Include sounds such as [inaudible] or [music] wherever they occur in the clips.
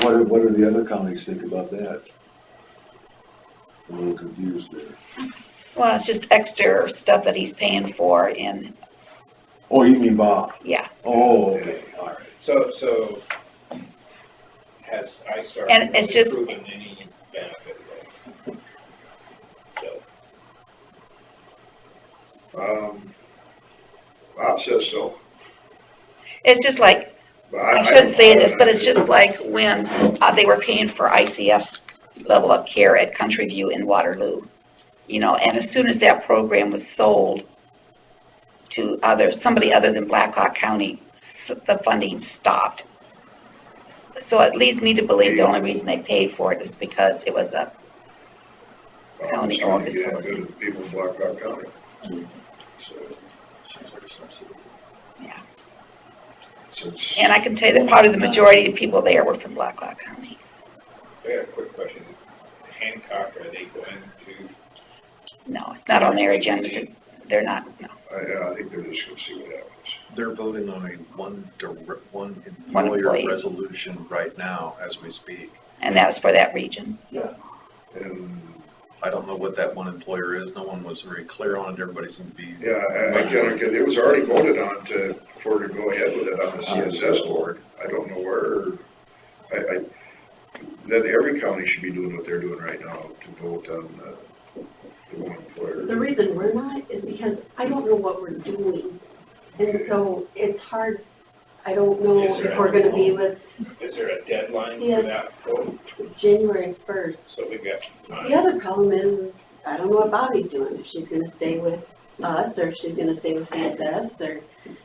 What, do- what do the other counties think about that? I'm a little confused there. Well, it's just extra stuff that he's paying for in, Oh, you mean Bob? yeah. Oh, okay, all right. So, so has ISTAR And it's really just- proven any benefit there? So, Um, Bob says so, It's just like, but I. I shouldn't say this, but it's just like when uh, they were paying for ICF level up care at Country View in Waterloo. You know, and as soon as that program was sold to others, somebody other than Blackhawk County, s- the funding stopped. So it leads me to believe the only reason they paid for it was because it was a county Trying to office get holder. good to the people in Black Rock County. So, since. And I can tell you that probably the majority of people there were from Blackhawk County. I got a quick question. Hancock, are they going to, No, it's not on their agenda. to- They're not, no. I, yeah, I think they're just gonna see what happens. They're voting on a one, dir- one One employee. employer resolution right now as we speak. And that was for that region. And, I don't know what that one employer is. No one was very clear on it. Everybody seemed to be, yeah, I, I can't, get- it was already voted on to, for to go ahead with it on the CSS board. I don't know where, I, I, that every county should be doing what they're doing right now to vote on the, the one employer. The reason we're not is because I don't know what we're doing. And so it's hard, I don't know Yes, sir. if we're gonna be with is there a deadline for Yes. that vote? January first. So we've got some The time. other problem is, is I don't know what Bobby's doing, if she's gonna stay with us, or if she's gonna stay with CSS, or,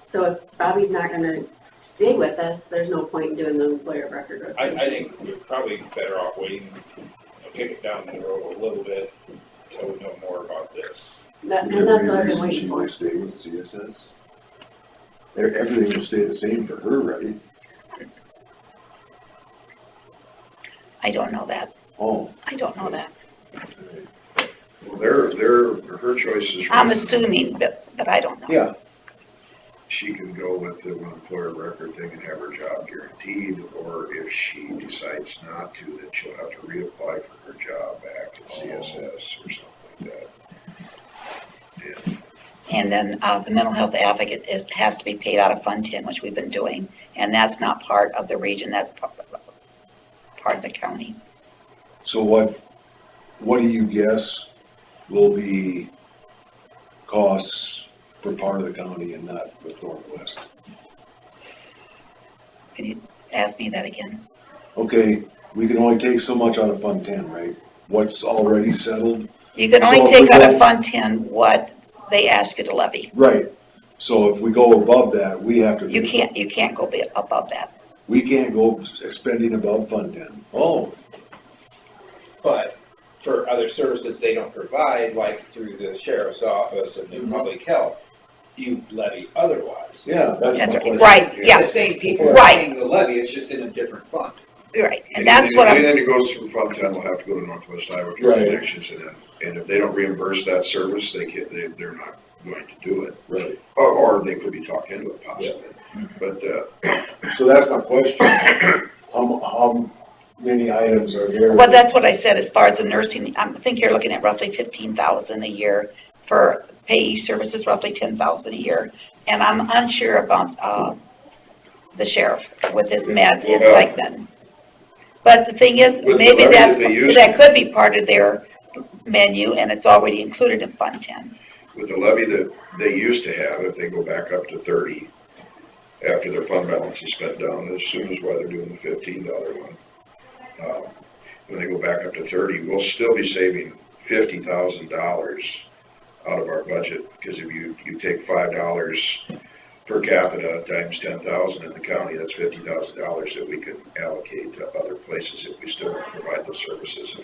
so if Bobby's not gonna stay with us, there's no point in doing the employer of record I, I resolution. think we're probably better off waiting, kick it down the road a little bit until we know more about this. That- Would And there that's be a what I've been reason waiting for. She might stay with CSS? E- Everything will stay the same for her, right? I don't know that. Oh, I don't know that. Well, Their, their, her choice is. I'm assuming, but, but I don't know. yeah, she can go with the one employer record thing and have her job guaranteed, or if she decides not to, then she'll have to reapply for her job back to CSS or something like that. And then, uh, the mental health advocate is, has to be paid out of Fund Ten, which we've been doing. And that's not part of the region, that's part, part of the county. so what, what do you guess will be costs for part of the county and not for Northwest? Can you ask me that again? Okay, we can only take so much out of Fund Ten, right? What's already settled? You can only So take out of we're- Fund Ten what they ask you to levy. Right, so if we go above that, we have to. You can't, you can't go be- above that. We can't go spending above Fund Ten. Oh, But for other services they don't provide, like through the sheriff's office and Mm-hmm. the Mhm. public health, you levy otherwise. yeah, that's That's my question. right, right, yeah, The same people are Right. paying the levy, it's just in a different fund. right. And that's what I'm, Anything that goes through Fund Ten will have to go to Northwest Iowa for Right. connections, and if, and if they don't reimburse that service, they can't, they, they're not going to do it. Right. Or, or they could be talked into it possibly, but, uh, So that's my question. [coughs] How, mu- how many items are there? well, that's what I said, as far as the nursing, I think you're looking at roughly fifteen thousand a year for payee services, roughly ten thousand a year. And I'm unsure about, uh, the sheriff with his meds, it's like that. But the thing is, With the maybe levy that's, that they use- that could be part of their menu, and it's already included in Fund Ten. with the levy that they used to have, if they go back up to thirty, after their fund balance is spent down, as soon as why they're doing the fifteen dollar one. um, When they go back up to thirty, we'll still be saving fifty thousand dollars out of our budget, because if you, you take five dollars per capita times ten thousand in the county, that's fifty thousand dollars that we could allocate to other places if we still provide those services.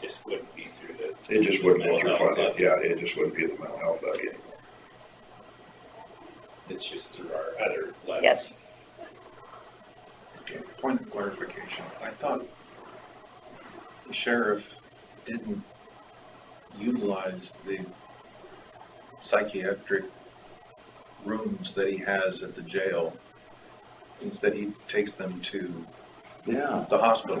Just wouldn't be through the It just wouldn't go through Mental health fund, yeah, it just wouldn't be the mental health levy anymore. It's just through our other levy. Yes. Okay, point of clarification. I thought the sheriff didn't utilize the psychiatric rooms that he has at the jail. Instead, he takes them to Yeah. the hospital.